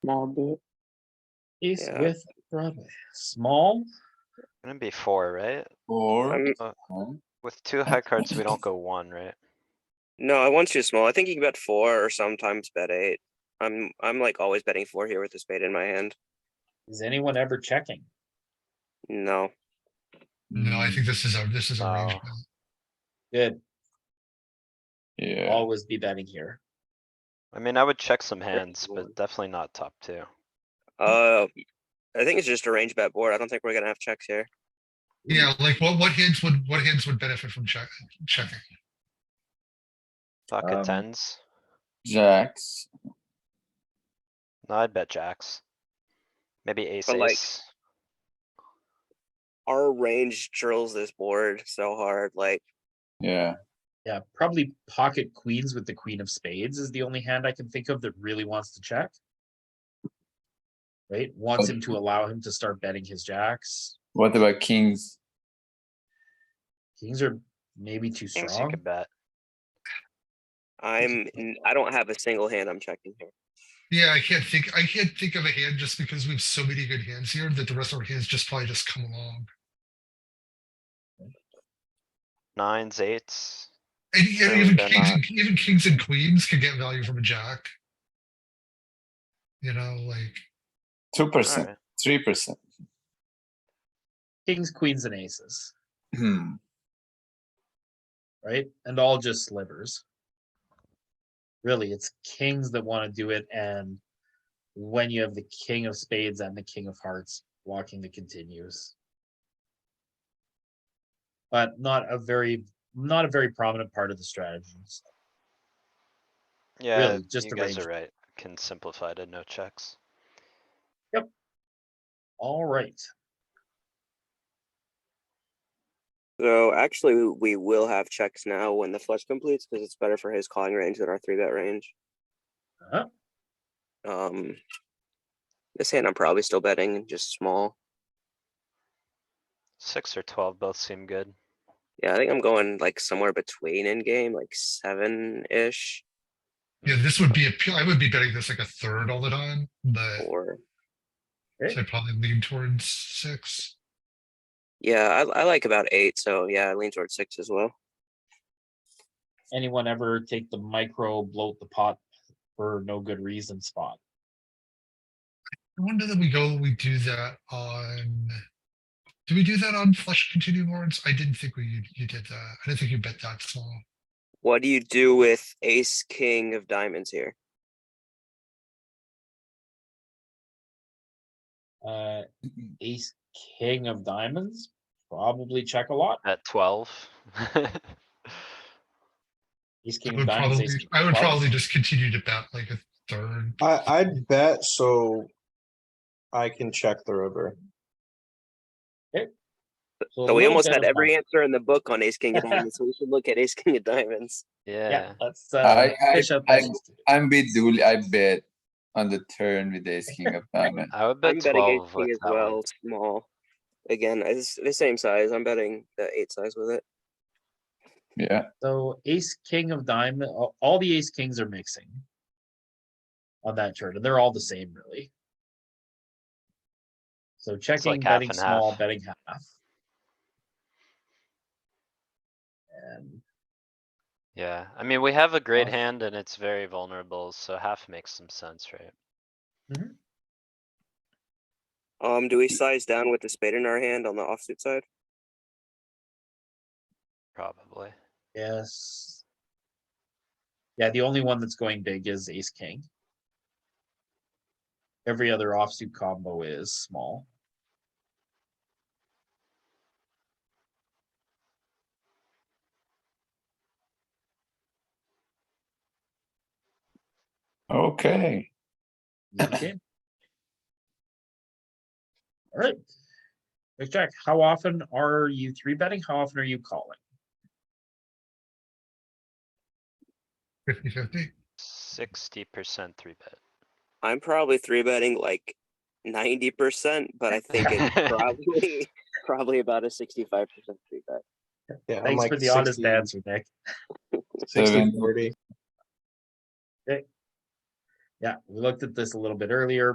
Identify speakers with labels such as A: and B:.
A: small bit.
B: Ace
C: Yeah.
B: with Broadway, small,
D: Gonna be four, right?
E: Or.
C: Um,
D: With two high cards, we don't go one, right?
C: No, I want too small. I think you can bet four or sometimes bet eight. I'm I'm like always betting four here with the spade in my hand.
B: is anyone ever checking?
C: No,
F: No,
E: Mm.
F: I think this is a, this is a range.
D: Oh.
F: bet.
B: Good,
E: Yeah,
B: always be betting here.
D: I mean, I would check some hands,
C: board.
D: but definitely not top two.
C: uh, I think it's just a range bet board. I don't think we're gonna have checks here.
F: Yeah, like what, what hands would, what hands would benefit from check, checking?
E: Um,
B: Um
D: Pocket tens.
E: jacks.
D: No, I'd bet jacks. Maybe ace,
C: But, like,
D: ace.
C: Our range drills this board so hard. Like
E: Yeah,
B: Yeah, probably pocket queens with the queen of spades is the only hand I can think of that really wants to check. Right, wants him to allow him to start betting his jacks,
E: what about kings?
B: kings are maybe too
D: Kings you
B: strong,
D: could bet.
C: I'm, n- I don't have a single hand I'm checking here.
F: Yeah, I can't think, I can't think of a hand just because we have so many good hands here that the rest of our hands just probably just come along.
D: Nines, eights.
F: And yeah,
D: Really,
F: even
D: they're
F: kings,
D: not.
F: and- even kings and queens could get value from a jack. You know, like,
E: Two percent,
D: Alright,
E: three percent.
B: kings, queens and aces,
E: Hmm,
B: right? And all just slivers. Really, it's kings that wanna do it and when you have the king of spades and the king of hearts walking the continues. But not a very, not a very prominent part of the strategies.
D: yeah,
B: really, just
D: you
B: the
D: guys
B: range.
D: are right. Can simplify to no checks.
B: All right,
C: So actually, we- we will have checks now when the flush completes because it's better for his calling range than our three bet range.
B: Uh-huh.
C: Um, this hand I'm probably still betting just small.
D: Six or twelve both seem good.
C: Yeah, I think I'm going like somewhere between in game, like seven ish
F: yeah, this would be, a pu- I would be betting this like a third all the time,
D: Eh.
F: but
C: or
F: so I'd probably lean towards six.
C: yeah, I, I like about eight. So yeah, I lean towards six as well.
B: anyone ever take the micro bloat the pot for no good reason spot?
F: I wonder that we go, we do that on. Do we do that on flush continue boards? I didn't think we, you- you did that. I didn't think you bet that small.
C: What do you do with ace king of diamonds here?
B: Uh, ace, king of diamonds, probably check a lot.
D: At twelve.
B: Ace,
F: I
B: king of
F: would
B: diamonds.
F: probably,
B: ace king
F: I
B: of
F: would
B: clubs.
F: probably just continue to bet like a third.
G: I, I'd bet so I can check the river.
B: a
C: So we
B: little
C: almost
B: bit
C: had
B: of
C: every
B: both.
C: answer in the book on ace king of diamonds. so we should look at ace king of diamonds.
D: Yeah,
B: Yeah, let's, uh,
E: I- I-
B: fish up
E: I-
B: that ace two.
E: I'm bit dooley, I bet on the turn with ace king of diamond.
D: I would
C: I'm
D: bet
C: betting ace
D: twelve
C: king
D: with
C: as
D: that one.
C: well, small. Again, it's the same size. I'm betting the eight size with it.
E: Yeah,
B: So ace, king of diamond, all- all the ace kings are mixing. On that chart, and they're all the same really. So checking,
D: half
B: betting
D: and
B: small,
D: half.
B: betting half. And
D: Yeah, I mean, we have a great
B: Uh,
D: hand and it's very vulnerable, so half makes some sense, right?
C: Um, do we size down with the spade in our hand on the offsuit side?
D: Probably.
B: Yes. Yeah, the only one that's going big is ace king. Every other offsuit combo is small.
E: okay.
B: Okay. Alright. Big Jack, how often are you three betting? How often are you calling?
F: Fifty fifty.
D: Sixty percent three bet.
C: I'm probably three betting like ninety percent, but I think it's probably probably about a sixty-five percent three bet.
G: Yeah, I'm
B: Thanks
G: like
B: for the honest
G: 60,
B: answer, Nick.
G: 60,
E: Seven.
G: 40.
B: Yeah, we looked at this a little bit earlier.